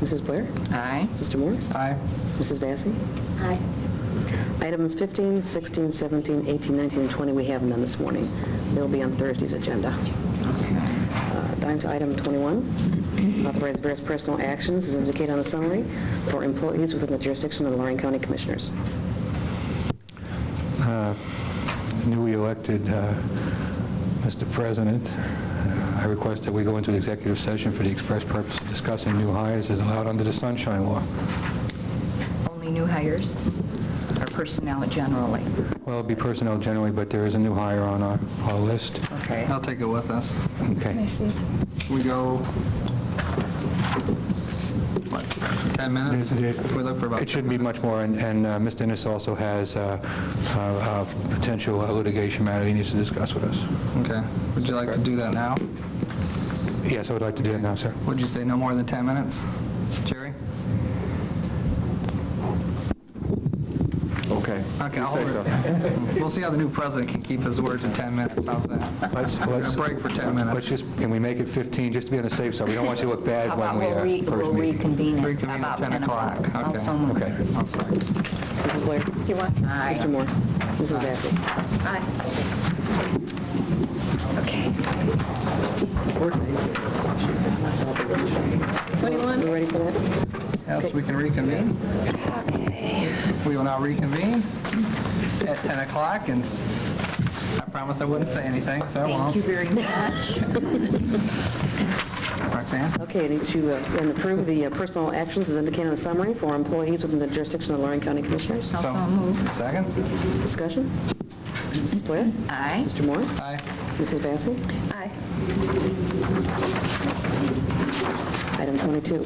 Mrs. Blair? Aye. Mr. Moore? Aye. Mrs. Vacy? Aye. Items 15, 16, 17, 18, 19, and 20, we have none this morning. They'll be on Thursday's agenda. Uh, Down to item 21, authorize various personal actions as indicated on the summary for employees within the jurisdiction of the Lorraine County Commissioners. Newly elected uh, Mr. President, I request that we go into executive session for the express purpose of discussing new hires as allowed under the Sunshine Law. Only new hires or personnel generally? Well, it'd be personnel generally, but there is a new hire on our our list. Okay. I'll take it with us. Okay. We go, what, 10 minutes? We look for about It shouldn't be much more, and- and uh, Mr. Ennis also has uh, uh, uh, potential uh, litigation matter he needs to discuss with us. Okay. Would you like to do that now? Yes, I would like to do it now, sir. Would you say no more than 10 minutes? Jerry? Okay. Okay, You I'll say hold it. We'll see how the new president can keep his word to 10 minutes. How's that? Let's- let's- A break for 10 minutes. Let's just, can we make it 15, just to be on the safe side? We don't want you to look bad How when about we we'll re- uh, we'll first meet. reconvene at Reconvene at about 10 10 o'clock? o'clock. Okay. Also moved. Okay. I'll second. Mrs. Blair? Do you want? Mr. Aye. Moore? Mrs. Vacy? Aye. Okay. 21? You ready for that? Yes, we can reconvene. We will now reconvene at 10 o'clock, and I promise I wouldn't say anything, so I Thank you won't. very much. Roxanne? Okay, I need to uh, then approve the uh, personal actions as indicated on the summary for employees within the jurisdiction of Lorraine County Commissioners. So Second? Discussion? Mrs. Blair? Aye. Mr. Moore? Aye. Mrs. Vacy? Aye. Item 22,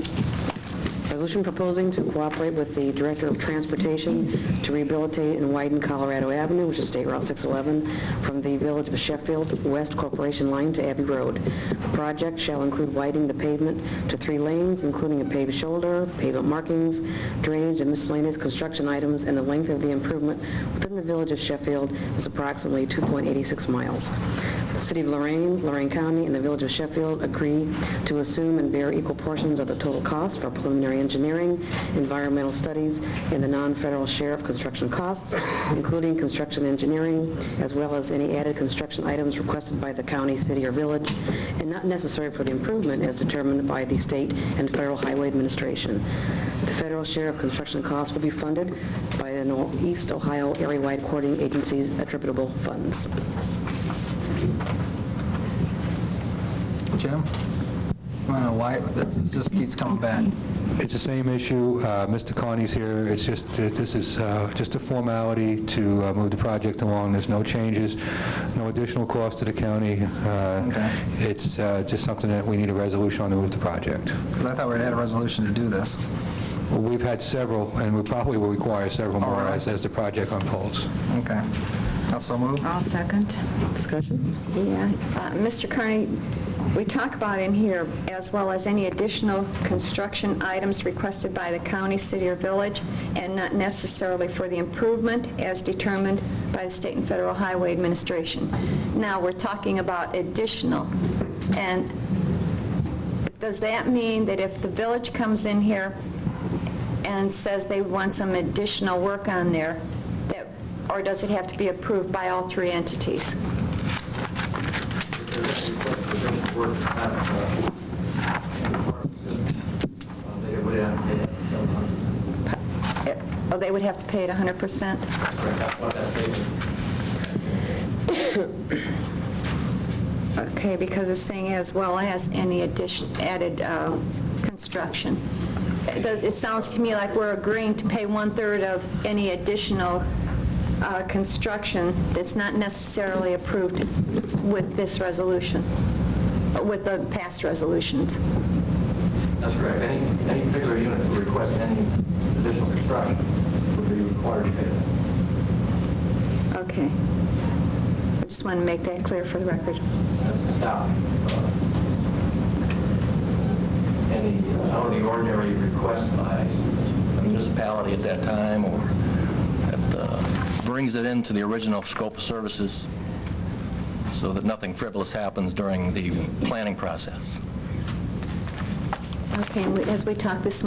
resolution proposing to cooperate with the Director of Transportation to rehabilitate and widen Colorado Avenue, which is State Route 611, from the Village of Sheffield West Corporation Line to Abbey Road. The project shall include widening the pavement to three lanes, including a paved shoulder, pavement markings, drainage, and miscellaneous construction items, and the length of the improvement within the Village of Sheffield is approximately 2.86 miles. The City of Lorraine, Lorraine County, and the Village of Sheffield agree to assume and bear equal portions of the total cost for preliminary engineering, environmental studies, and the non-federal share of construction costs, including construction engineering, as well as any added construction items requested by the county, city, or village, and not necessary for the improvement as determined by the state and federal highway administration. The federal share of construction costs will be funded by the Northeast Ohio Area-wide Coordinating Agency's attributable funds. Jim? I don't know why, but this is- just keeps coming back. It's the same issue, uh, Mr. Carney's here, it's just, that this is uh, just a formality to uh, move the project along, there's no changes, no additional cost to the county, Uh, Okay. it's uh, just something that we need a resolution on to move the project. 'Cause I thought we had a resolution to do this. We've had several, and we probably will require several All more right. as as the project unfolds. Okay. Also moved? I'll second. Discussion? Yeah. Uh, Mr. Carney, we talk about in here, as well as any additional construction items requested by the county, city, or village, and not necessarily for the improvement as determined by the state and federal highway administration. Now, we're talking about additional, and does that mean that if the village comes in here and says they want some additional work on there, that, or does it have to be approved by all three entities? Oh, they would have to pay it 100%? Okay, because it's saying as well as any addition, added uh, construction. It does- it sounds to me like we're agreeing to pay one-third of any additional uh, construction that's not necessarily approved with this resolution, with the past resolutions. That's correct. Any, any particular unit who requests any additional construction would be required to pay that. Okay. I just want to make that clear for the record. That's not, uh, any uh, out of the ordinary request by a municipality at that time or that uh, brings it into the original scope of services so that nothing frivolous happens during the planning process. Okay, and we- as we talked this